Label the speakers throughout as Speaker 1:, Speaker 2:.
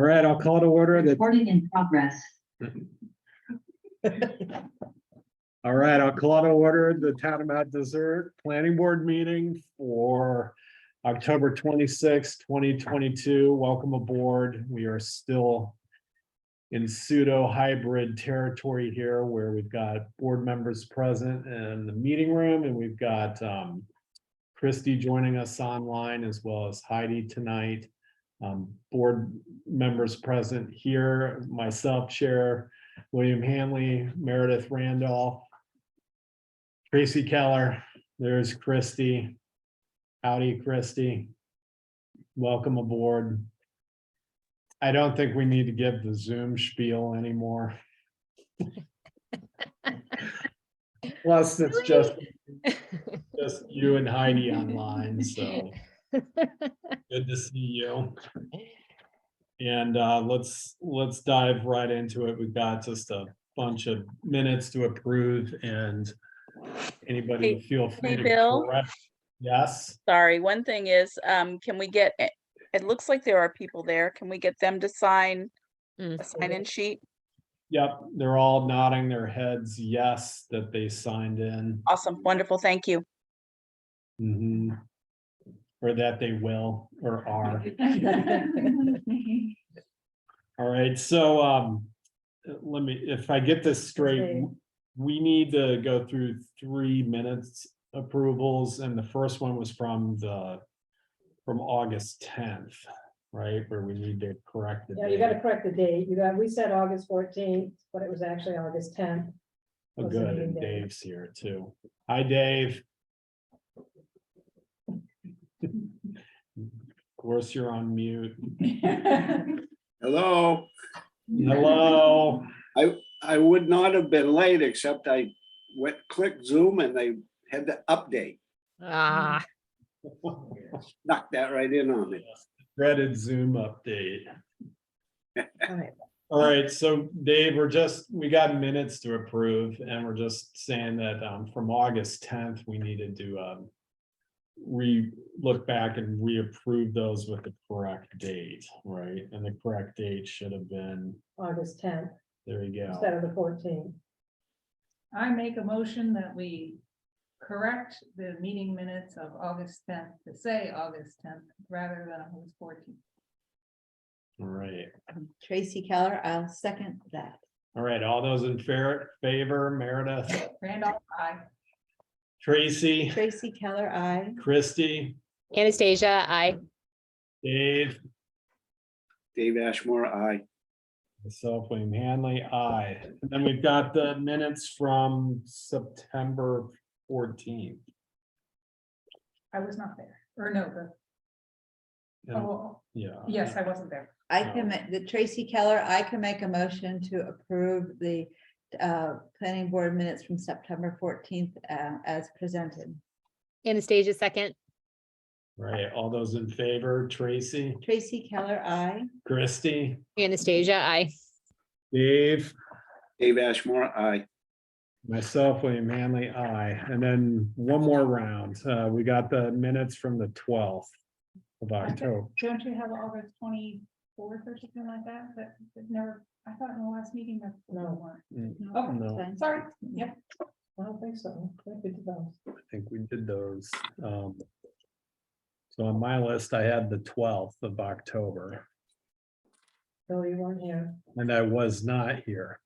Speaker 1: All right, I'll call to order the,
Speaker 2: Recording in progress.
Speaker 1: all right, I'll call to order the Town of Mount Desert Planning Board meeting for October twenty sixth, twenty twenty-two. Welcome aboard. We are still in pseudo hybrid territory here where we've got board members present in the meeting room and we've got um Christie joining us online as well as Heidi tonight. Um, board members present here, myself, Chair William Hanley, Meredith Randolph, Tracy Keller, there's Christy. Howdy, Christy. Welcome aboard. I don't think we need to give the Zoom spiel anymore. Plus, it's
Speaker 3: Really?
Speaker 1: just, just you and Heidi online, so good to see you. And uh, let's, let's dive right into it. We've got just a bunch of minutes to approve and anybody
Speaker 4: Hey-
Speaker 1: feel free
Speaker 4: hey,
Speaker 1: to
Speaker 4: Bill?
Speaker 1: correct. Yes,
Speaker 4: Sorry, one thing is, um, can we get, it it looks like there are people there. Can we get them to sign
Speaker 3: Mm.
Speaker 4: a sign-in sheet?
Speaker 1: yep, they're all nodding their heads, yes, that they signed in.
Speaker 4: Awesome, wonderful, thank you.
Speaker 1: Mhm. Or that they will or are. All right, so um, let me, if I get this straight,
Speaker 2: Okay.
Speaker 1: we need to go through three minutes approvals, and the first one was from the, from August tenth, right, where we need to correct the
Speaker 5: Yeah, you gotta
Speaker 1: date.
Speaker 5: correct the date. You got, we said August fourteenth, but it was actually August tenth.
Speaker 1: Oh,
Speaker 5: close the
Speaker 1: Good,
Speaker 5: meeting
Speaker 1: and
Speaker 5: date.
Speaker 1: Dave's here too. Hi, Dave. Of course, you're on mute.
Speaker 6: Hello,
Speaker 1: Hello.
Speaker 6: I would not have been late, except I went, clicked Zoom and they had to update,
Speaker 3: Ah,
Speaker 6: knocked that right in on me.
Speaker 1: Dreaded Zoom update.
Speaker 5: All right.
Speaker 1: All right, so Dave, we're just, we got minutes to approve and we're just saying that um from August tenth, we needed to um. Re, look back and reapprove those with the correct date, right? And the correct date should have been,
Speaker 5: August tenth
Speaker 1: there you
Speaker 5: instead
Speaker 1: go.
Speaker 5: of the fourteenth.
Speaker 7: I make a motion that we correct the meeting minutes of August tenth to say August tenth rather than August fourteenth.
Speaker 1: All right,
Speaker 8: Tracy Keller, I'll second that.
Speaker 1: all right, all those in fair favor, Meredith,
Speaker 7: Randolph, I,
Speaker 1: Tracy,
Speaker 8: Tracy Keller, I.
Speaker 1: Christy,
Speaker 3: Anastasia, I,
Speaker 1: Dave,
Speaker 6: Dave Ashmore, I,
Speaker 1: myself, William Hanley, aye. And then we've got the minutes from September fourteenth.
Speaker 7: I was not there, or no, the, oh,
Speaker 1: Yeah.
Speaker 7: yes, I wasn't there.
Speaker 8: I can, ma- the Tracy Keller, I can make a motion to approve the uh, planning board minutes from September fourteenth uh, as presented.
Speaker 3: Anastasia, second.
Speaker 1: Right, all those in favor, Tracy,
Speaker 8: Tracy Keller, I.
Speaker 1: Christie,
Speaker 3: Anastasia, I.
Speaker 1: Dave,
Speaker 6: Dave Ashmore, I.
Speaker 1: myself, William Manley, aye. And then one more round. Uh, we got the minutes from the twelfth of October.
Speaker 7: Don't you have August twenty-fourth or something like that, that, that never, I thought in the last meeting that.
Speaker 5: No.
Speaker 7: one.
Speaker 1: Oh, no, I
Speaker 8: Fine.
Speaker 7: Sorry, yep,
Speaker 5: I don't think so. I think it's those.
Speaker 1: think we did those. Um, So on my list, I had the twelfth of October,
Speaker 5: No, you weren't here.
Speaker 1: and I was not here.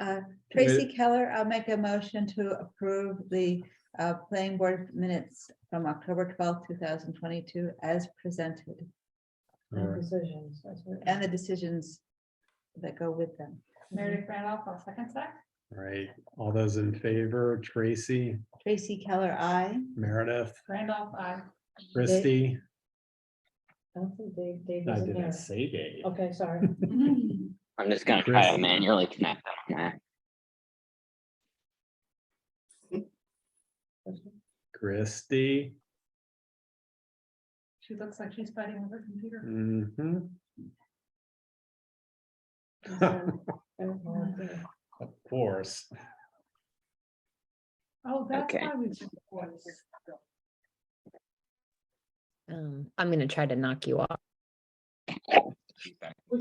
Speaker 8: Uh, Tracy Keller, I'll make a motion to approve the uh, planning board minutes from October twelfth, two thousand twenty-two as presented
Speaker 1: All
Speaker 5: No
Speaker 1: right.
Speaker 5: decisions. that's what-
Speaker 8: and the decisions that go with them.
Speaker 7: Meredith Randolph, I'll second that.
Speaker 1: All right, all those in favor, Tracy,
Speaker 8: Tracy Keller, I.
Speaker 1: Meredith,
Speaker 7: Randolph, I,
Speaker 1: Christie.
Speaker 5: I don't think Dave, Dave
Speaker 1: I
Speaker 5: isn't here.
Speaker 1: didn't say Dave.
Speaker 5: Okay, sorry.
Speaker 9: I'm just gonna
Speaker 1: Chris.
Speaker 9: try to manually connect them. yeah.
Speaker 1: Christie.
Speaker 7: she looks like she's fighting with her computer.
Speaker 1: Mm-hmm.
Speaker 5: I'm sorry. I don't know what to do.
Speaker 1: Of course.
Speaker 7: Oh, that's
Speaker 9: Okay.
Speaker 7: why we. did the voice.
Speaker 3: Um, I'm gonna try to knock you off.
Speaker 9: feedback.